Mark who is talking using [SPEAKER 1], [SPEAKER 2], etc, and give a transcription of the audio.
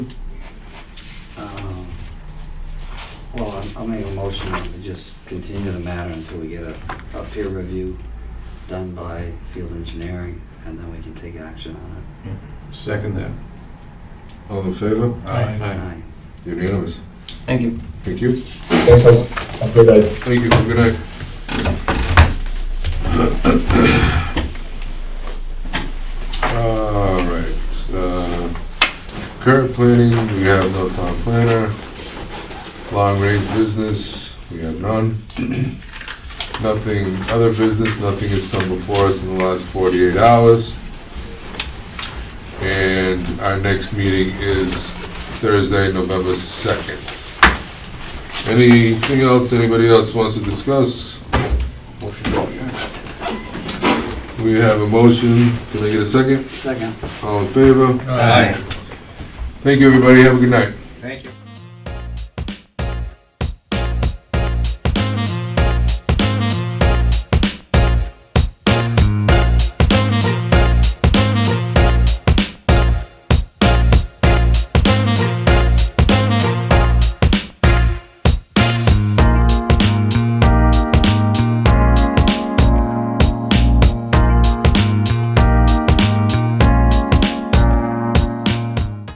[SPEAKER 1] Um, Well, I'm- I'll make a motion that we just continue the matter until we get a, a peer review done by field engineering, and then we can take action on
[SPEAKER 2] Second that.
[SPEAKER 3] All in favor?
[SPEAKER 4] Aye.
[SPEAKER 1] it.
[SPEAKER 2] Aye.
[SPEAKER 1] Aye.
[SPEAKER 3] Unanimous.
[SPEAKER 5] Thank you.
[SPEAKER 3] Thank you.
[SPEAKER 4] Thanks, Ellen. Have a good day.
[SPEAKER 3] Thank you. Good night. All right. uh, Current planning, we have no town planner. Long-range business, we have none. Nothing, other business, nothing has come before us in the last 48 hours. And our next meeting is Thursday, November 2nd. Anything else anybody else wants to discuss? We have a motion. Can I get a second?
[SPEAKER 1] Second.
[SPEAKER 3] All in favor?
[SPEAKER 4] Aye.
[SPEAKER 3] Thank you, everybody. Have a good night.
[SPEAKER 5] Thank you.